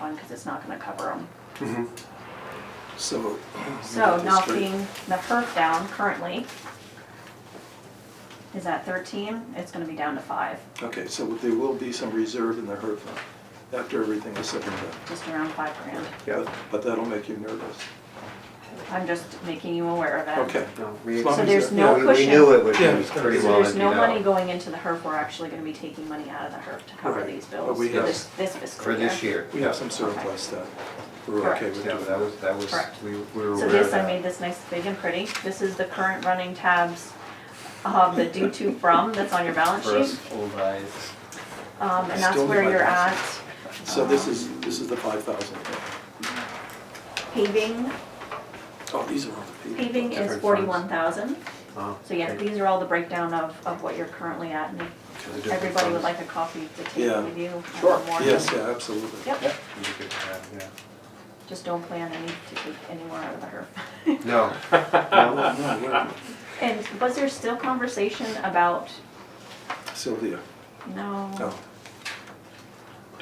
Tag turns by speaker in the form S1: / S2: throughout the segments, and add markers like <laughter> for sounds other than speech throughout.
S1: one because it's not gonna cover them.
S2: Mm-hmm. So. <clears throat>
S1: So knocking
S2: District.
S1: the perf down currently is at thirteen, it's gonna be down to five,
S2: Okay, so there will be some reserve in the HERF fund after everything is said and done.
S1: just around five grand.
S2: Yeah, but that'll make you nervous.
S1: I'm just making you aware of it.
S2: Okay.
S3: No, we-
S2: As long
S1: So
S2: as
S1: there's
S2: that-
S1: no
S3: we-
S1: cushion.
S3: We knew it would be
S4: Yeah.
S3: pretty
S1: So
S3: well
S1: there's
S3: emptied
S1: no money
S3: out
S1: going into the HERF, we're actually gonna be taking money out of the HERF to cover
S2: Right.
S1: these
S2: But
S1: bills
S2: we
S1: for
S2: have-
S1: this, this fiscal
S3: for
S1: year.
S3: this year.
S2: We have some surplus that we're okay with
S3: Yeah,
S2: doing.
S3: that was, that was,
S1: Correct.
S3: we we were
S1: So
S3: aware of
S1: this, I made
S3: that.
S1: this nice big and pretty, this is the current running tabs um, of the due to from that's on your balance sheet.
S3: First, old eyes.
S1: Um, and that's
S2: Still need
S1: where
S2: my
S1: you're at.
S2: glasses. So this is, this is the five thousand.
S1: Paving,
S2: Oh, these are all the people.
S1: paving is
S3: Different funds.
S1: forty-one thousand.
S3: Oh,
S1: So yes,
S3: okay.
S1: these are all the breakdown of, of what you're currently at, and if
S3: To the different
S1: everybody would
S3: funds.
S1: like a coffee to
S2: Yeah.
S1: take with you. uh, more.
S2: Yes, yeah, absolutely.
S1: Yep,
S3: You could have, yeah.
S1: just don't plan any to take anywhere out of the HERF.
S3: No, no,
S2: No, wait,
S1: <laughs> And was there still conversation about,
S2: Sylvia,
S1: no,
S2: oh.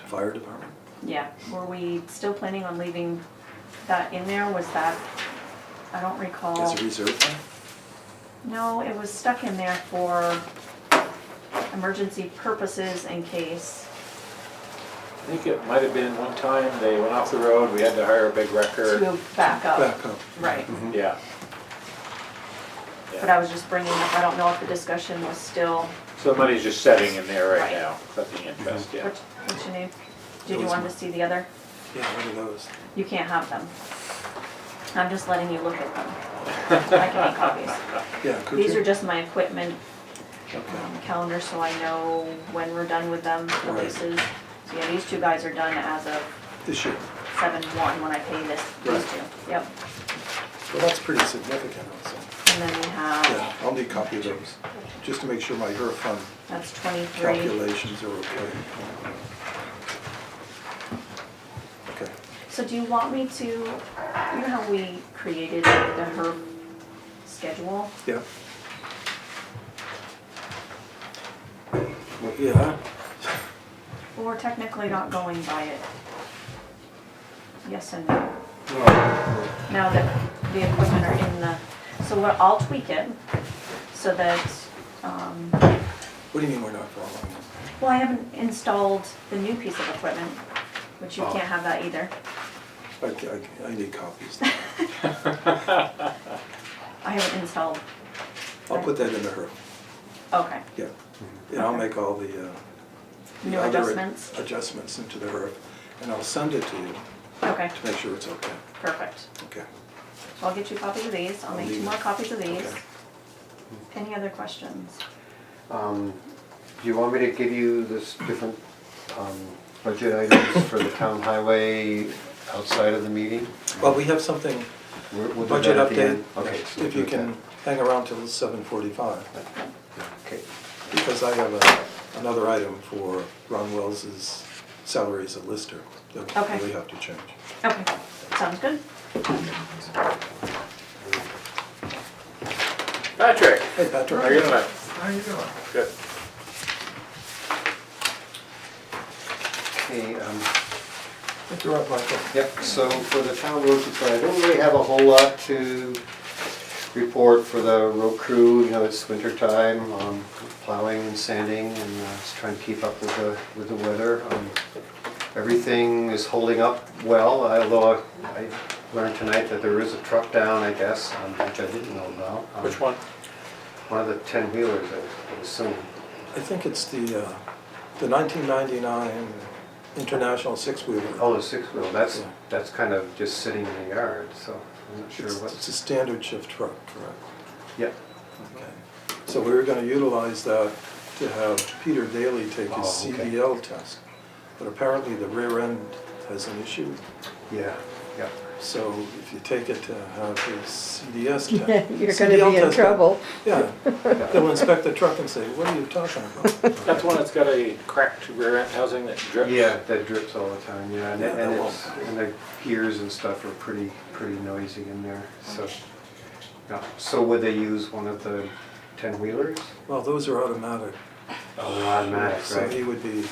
S2: Fire department?
S1: yeah, were we still planning on leaving that in there, was that, I don't recall.
S2: As a reserve fund?
S1: No, it was stuck in there for emergency purposes in case,
S4: I think it might have been one time they went off the road, we had to hire a big wrecker.
S1: to back up,
S2: Back up.
S1: right.
S4: Yeah.
S1: But I was just bringing up, I don't know if the discussion was still,
S4: So the money's just setting in there right
S1: Right.
S4: now, collecting interest, yeah.
S1: what's, what's your name? Did you want to see the other?
S2: Yeah, one of those.
S1: You can't have them. I'm just letting you look at them. I can make copies.
S2: Yeah, could you?
S1: These are just my equipment
S2: Okay.
S1: um, calendar, so I know when we're done with them,
S2: Right.
S1: releases. So yeah, these two guys are done as of
S2: This year.
S1: seven one when I pay this, these
S2: Right.
S1: two. Yep.
S2: Well, that's pretty significant also.
S1: And then we
S2: Yeah,
S1: have,
S2: I'll need copy of those, just to make sure my HERF fund
S1: that's twenty-three.
S2: calculations are okay. Okay,
S1: So do you want me to, you know how we created the HERB schedule?
S2: yeah. Well, Yeah,
S1: Well, we're technically not going by it. Yes and no.
S3: no.
S1: now that the equipment are in the, so what, I'll tweak it so that, um,
S2: what do you mean we're not following?
S1: well, I haven't installed the new piece of equipment, which you
S3: Oh.
S1: can't have that either.
S2: I, I, I
S1: <laughs>
S2: need copies.
S1: I haven't installed,
S2: I'll put that in the HERF,
S1: okay,
S2: yeah. And I'll make all the, uh. the
S1: new
S2: other
S1: adjustments,
S2: Adjustments into the HERF, and I'll send it to you
S1: okay,
S2: to make sure it's okay,
S1: perfect.
S2: okay.
S1: So I'll get you copies of these, I'll make two more copies of these.
S2: Okay.
S1: Any other questions?
S3: Um, Do you want me to give you this different um, budget items for the town highway outside of the meeting?
S2: Well, we have something,
S3: We'll- we'll do
S2: budget
S3: that at the
S2: update,
S3: end. Okay. so we'll
S2: if
S3: do
S2: you
S3: it then.
S2: can hang around till seven forty-five.
S3: Okay.
S2: Because I have a, another item for Ron Wells's salary as a lister
S1: Okay.
S2: that we have to change.
S1: Okay, sounds good.
S4: Patrick,
S2: Hey, Patrick.
S4: how you doing?
S2: How you doing?
S4: Good.
S3: Okay, um,
S2: Interrupt Michael.
S3: Yep, so for the town road crew, I don't really have a whole lot to report for the road crew, you know, it's winter time, um, plowing and sanding and uh, just trying to keep up with the, with the weather. Um, Everything is holding up well, although I learned tonight that there is a truck down, I guess, um, which I didn't know about. Um,
S4: Which one?
S3: One of the ten wheelers, I assume.
S2: I think it's the, uh, the nineteen ninety-nine International Six Wheeler.
S3: Oh, the six wheel, that's, that's kind of just sitting in the yard, so I'm not sure
S2: It's it's
S3: what's.
S2: a standard shift truck, correct?
S3: Yep.
S2: Okay. So we were gonna utilize that to have Peter Daly take his
S3: Oh, okay.
S2: CDL test. But apparently the rear end has an issue.
S3: Yeah, yeah.
S2: So if you take it to have his
S5: <laughs>
S2: CDS
S5: You're
S2: test.
S5: gonna be in trouble.
S2: Yeah, they'll inspect the truck and say, what are you talking
S5: <laughs>
S2: about?
S4: That's the one that's got a cracked rear end housing that drips?
S3: Yeah, that drips all the time, yeah, and,
S2: Yeah, that
S3: and it's,
S2: won't-
S3: and the gears and stuff are pretty, pretty noisy in there, so. yeah. So would they use one of the ten wheelers?
S2: Well, those are automatic.
S3: Oh, automatic,
S2: So he
S3: right?
S2: would be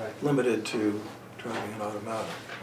S3: Right.
S2: limited to driving an automatic.